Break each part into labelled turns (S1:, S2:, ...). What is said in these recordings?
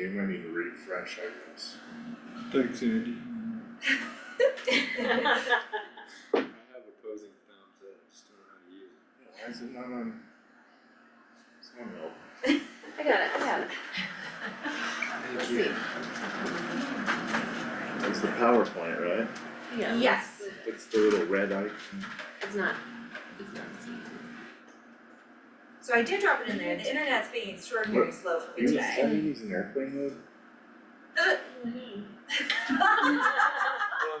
S1: name, I need to refresh, I guess.
S2: Thanks, Andy.
S3: I have opposing thumbs, I just don't know how to use it.
S1: Why is it not on? It's not on.
S4: I got it, I got it.
S3: Thank
S4: Let's see.
S5: It's the power plant, right?
S4: Yeah.
S6: Yes.
S4: let's-
S5: It's the little red icon.
S4: It's not, it's not seen.
S6: So I did drop it in there, the internet's being extraordinarily slow for me
S5: You
S6: today.
S5: decided to use an airplane mode?
S3: Well, I'm
S7: I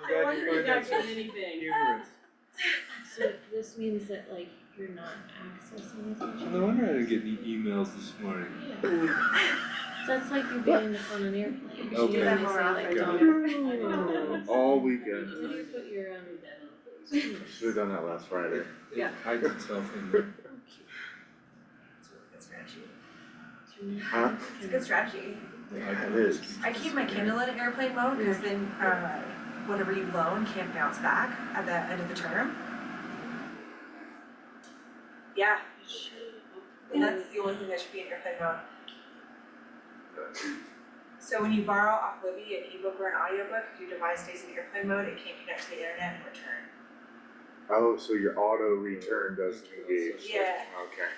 S3: glad
S7: wonder
S3: you
S7: if
S3: find that
S7: that's
S3: so
S7: anything.
S3: humorous.
S4: So this means that like you're not accessing this?
S2: No wonder I didn't get any emails this morning.
S4: Yeah. That's like you being on an airplane. You
S2: Okay.
S4: know,
S7: That
S4: they
S7: more
S4: say, like,
S7: often.
S4: don't-
S5: All weekend.
S4: Where do you put your um? shoes?
S5: Should've done that last Friday.
S2: It hides itself in there.
S6: It's a really good strategy.
S5: Huh?
S6: It's a good strategy.
S5: Yeah, it is.
S6: I keep my Kindle in airplane mode, cause then, uh, whatever you loan can't bounce back at the end of the term. Yeah, and that's the only thing that should be in airplane mode. So when you borrow off Libby an ebook or an audiobook, if your device stays in airplane mode, it can't connect to the internet and return.
S5: Oh, so your auto return doesn't engage.
S6: Yeah.
S5: Okay,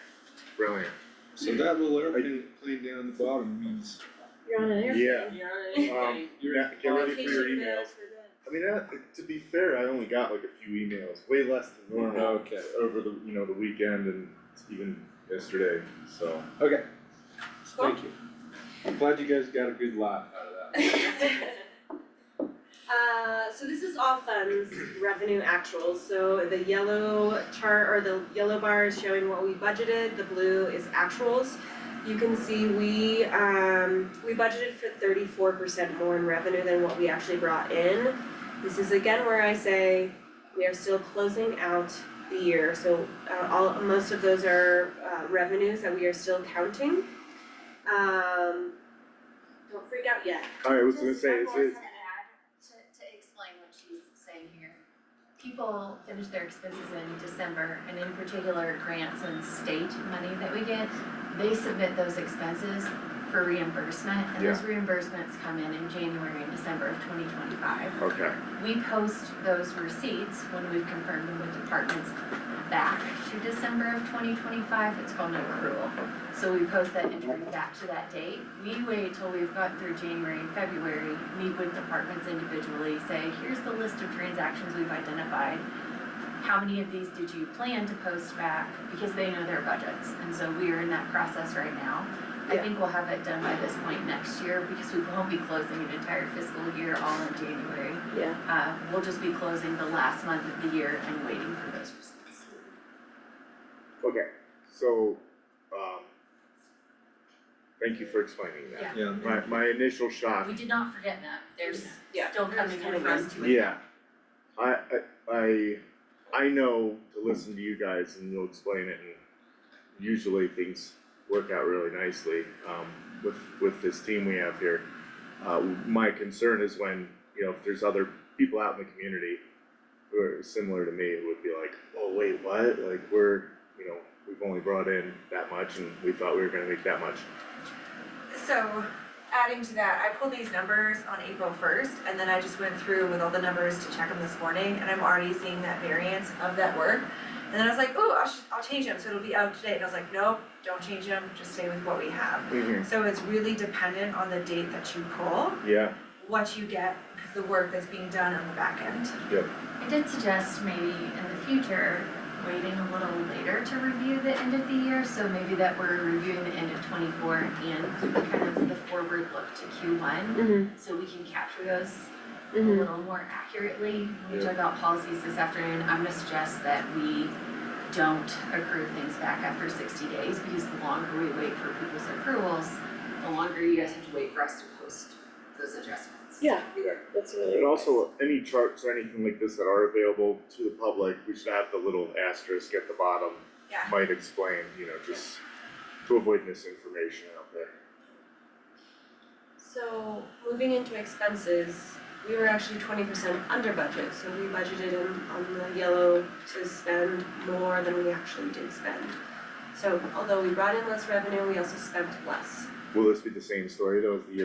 S5: brilliant.
S2: So that little airplane plane down at the bottom means
S4: You're on an airplane.
S5: Yeah,
S7: You're on anything.
S5: um, you're not, get ready for your emails. I mean, that, to be fair, I only got like a few emails, way less than normal.
S3: Okay.
S5: Over the, you know, the weekend and even yesterday, so.
S3: Okay. Thank you. I'm glad you guys got a good laugh out of that.
S7: Uh, so this is all funds revenue actuals, so the yellow chart or the yellow bar is showing what we budgeted, the blue is actuals. You can see we, um, we budgeted for thirty-four percent more in revenue than what we actually brought in. This is again where I say we are still closing out the year, so uh, all, most of those are uh, revenues that we are still counting. Um, don't freak out yet.
S5: I was gonna say, it's, it's,
S8: Just one more thing to add, to, to explain what she's saying here. People finish their expenses in December, and in particular grants and state money that we get, they submit those expenses for reimbursement, and those reimbursements come in in January and December of twenty twenty-five.
S5: okay,
S8: We post those receipts when we've confirmed them with departments back to December of twenty twenty-five, it's called an accrual. So we post that entry back to that date. We wait till we've got through January and February, meet with departments individually, say, here's the list of transactions we've identified. How many of these did you plan to post back? Because they know their budgets, and so we are in that process right now. I
S7: Yeah.
S8: think we'll have it done by this point next year, because we won't be closing an entire fiscal year all in January.
S4: Yeah.
S8: Uh, we'll just be closing the last month of the year and waiting for those receipts.
S5: okay, so, um. Thank you for explaining that.
S2: yeah.
S5: My, my initial shock
S8: We did not forget that, there's
S7: Yeah.
S8: still coming in for us to.
S5: Yeah, I, I, I, I know to listen to you guys and you'll explain it and usually things work out really nicely, um, with, with this team we have here. Uh, my concern is when, you know, if there's other people out in the community who are similar to me, who would be like, oh, wait, what? Like, we're, you know, we've only brought in that much and we thought we were gonna make that much.
S6: So adding to that, I pulled these numbers on April first and then I just went through with all the numbers to check them this morning and I'm already seeing that variance of that work. And then I was like, ooh, I'll sh- I'll change them, so it'll be out today. And I was like, nope, don't change them, just stay with what we have. So it's really dependent on the date that you pull,
S5: Yeah,
S6: what you get, cause the work that's being done on the back end.
S8: I did suggest maybe in the future, waiting a little later to review the end of the year, so maybe that we're reviewing the end of twenty-four and kind of the forward look to Q one,
S4: Mhm,
S8: so we can capture those a
S4: mhm.
S8: little more accurately. We talked about policies this afternoon, I'm gonna suggest that we don't accrue things back after sixty days, because the longer we wait for people's accruals, the longer you guys have to wait for us to post those adjustments.
S4: Yeah, that's really.
S5: And also, any charts or anything like this that are available to the public, we should have the little asterisk at the bottom.
S6: Yeah.
S5: Might explain, you know, just to avoid misinformation out there.
S7: So moving into expenses, we were actually twenty percent under budget, so we budgeted in on the yellow to spend more than we actually did spend. So although we brought in less revenue, we also spent less.
S5: Will this be the same story though as the year